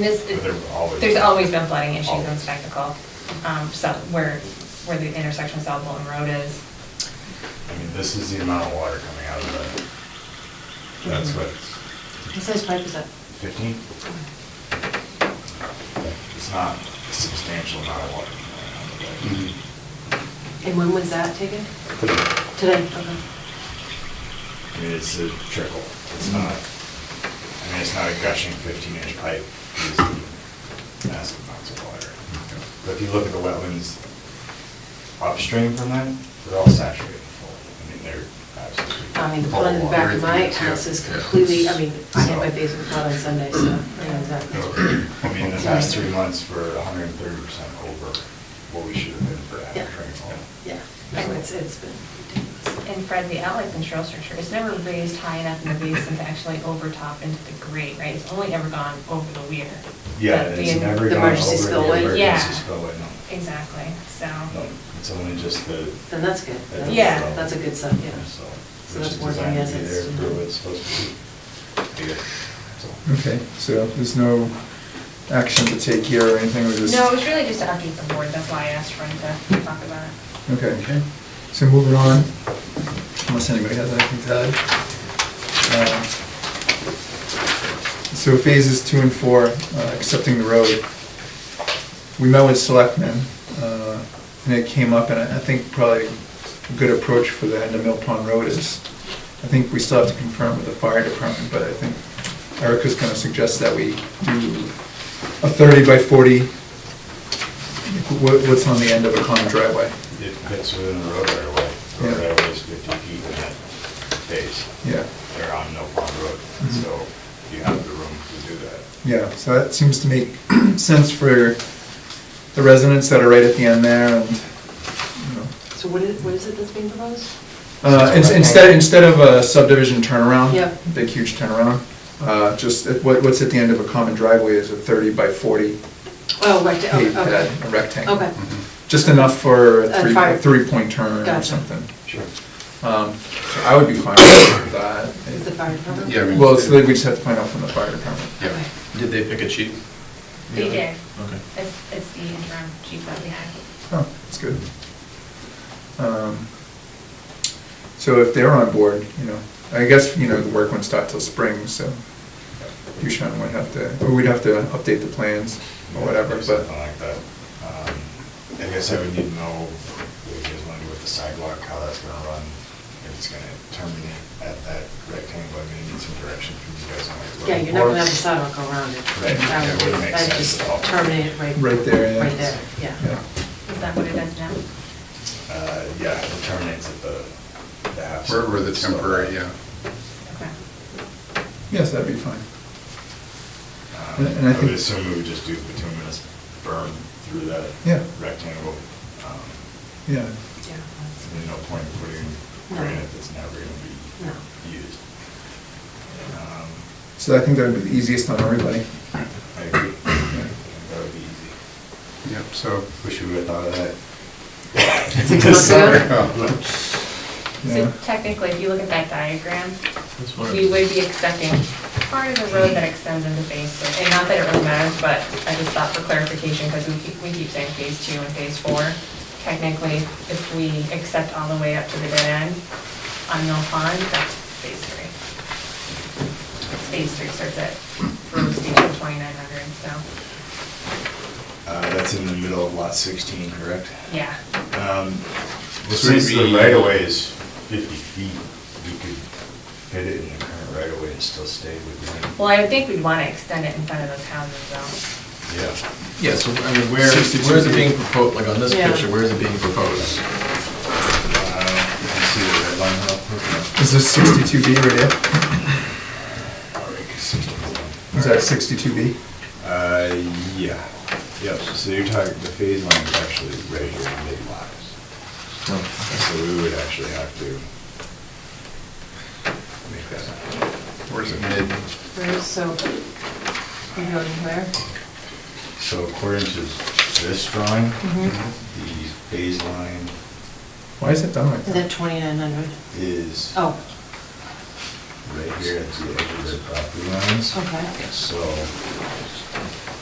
This, But there always- there's always been flooding issues in Always. Spectacle, um, so where, where the intersection of South Bolton Road is. I mean, this is the amount of water coming out of that. That's what, What size pipe is that? fifteen? It's not a substantial amount of water coming And when was that taken? out of that. Today, okay. I mean, it's a trickle. It's not, I mean, it's not a gushing fifteen inch pipe. It's massive amounts of water. But if you look at the wetlands upstream from that, they're all saturated full. I mean, they're absolutely. I mean, the full one in the of water. back of my Everything is, yeah. house is completely, I mean, I had my So- basement flood on Sunday, so I know exactly. Oh, I mean, the past three months were hundred and thirty percent over what we should have been for Yeah. average rainfall. Yeah, no, it's, it's been ridiculous. And Fred, the outlet control structure is never raised high enough in the basin to actually overtop into the grate, right? It's only ever gone over the weir. Yeah, But it's the- never the gone over emergency the spillway? emergency Yeah. spillway, no. Exactly, so. No, It's only just the. Then that's good. That's- Yeah. That's a good sign, yeah. So, So which that's is working designed as to be it's. there for what it's supposed to be. I guess, so. Okay, so there's no action to take here or anything, we're just... No, it was really just to update the board, that's why I asked Fred to talk about it. Okay, so moving on, unless anybody has anything to add. Uh, So phases two and four, uh, accepting the road. We met with selectmen, uh, and it came up, and I I think probably a good approach for the end of Mill Pond Road is, I think we still have to confirm with the fire department, but I think Erica's gonna suggest that we do a thirty by forty, what- what's on the end of a common driveway. It fits within the road right away. The Road Yeah. right away is fifty feet in that phase. Yeah, They're on no pond road, Mhm. so you have the room to do that. yeah, so that seems to make sense for the residents that are right at the end there and, you know. So what is, what is it that's being proposed? Uh, ins- Instead, instead of a subdivision turnaround. Yep. Big huge turnaround, uh, just at what, what's at the end of a common driveway is a thirty by forty Oh, rectangle, paved okay. pad, uh, a rectangle. Okay. Mm-hmm. Just enough for a Uh-huh. A three, fire- a three-point turn or Gotcha. something. Sure. Um, so I would be fine with that. Is the fire department? Yeah, I mean- Well, it's, we just have to find out from the fire department. Yeah. Did they pick a cheat? They Yeah. did. Okay. It's, it's the interim chief that we had. Oh, that's good. Um, So if they're on board, you know, I guess, you know, the work won't start till spring, so Dushan would have to, or we'd have to update the plans or whatever, but, Something like that. Um, I guess I would need to know what you guys want to do with the sidewalk, how that's gonna run, if it's gonna terminate at that rectangle, I mean, I need some direction from you guys on it. Yeah, you're not gonna have the sidewalk go around it. Right, yeah, That it would- wouldn't make that'd sense just at all. terminate it right. Right there, yeah. Right there, yeah. yeah. Is that what it is now? Uh, yeah, it terminates at the, the house. Where were the temporary, yeah. Okay. Yes, that'd be fine. Um, And- and I I would think- assume we would just do bituminous burn through that Yeah. rectangle. Um, Yeah, Yeah. There's no point in putting No. granite that's never No. gonna be used. Um, so I think that would be the easiest on everybody. I agree. That would be easy. Yep, so. Wish we would have thought of that. Six months ago? Yeah. So technically, if you look at that diagram, That's what we it- would be accepting part of the road that extends into phase three. And not that it really matters, but I just thought for clarification, because we keep, we keep saying phase two and phase four. Technically, if we accept all the way up to the dead end on Mill Pond, that's phase three. Phase three starts at road station twenty-nine hundred, so, Uh, that's in the middle of lot sixteen, correct? yeah. Um, So Since it'd the be- right of way is fifty feet, we could fit it in the current right of way and still stay within. Well, I would think we'd want to extend it in front of those houses, though. Yeah. Yeah, so, I mean, where, Sixty-two where is it feet. being proposed, like on this Yeah. picture, where is it being proposed? Uh, you can see the red line up. Is this sixty-two B right here? All right, 16. Is that sixty-two B? Uh, yeah, yep, so you're talking, the phase line is actually right here in mid-lot. So we would actually have to make that happen. Where's it mid? Where is, so, you know, where? So according to this drawing, Mhm. the phase line Why is it done like Is that that? 2,900? is right Oh, Oh. here at the edge of the property lines. okay. So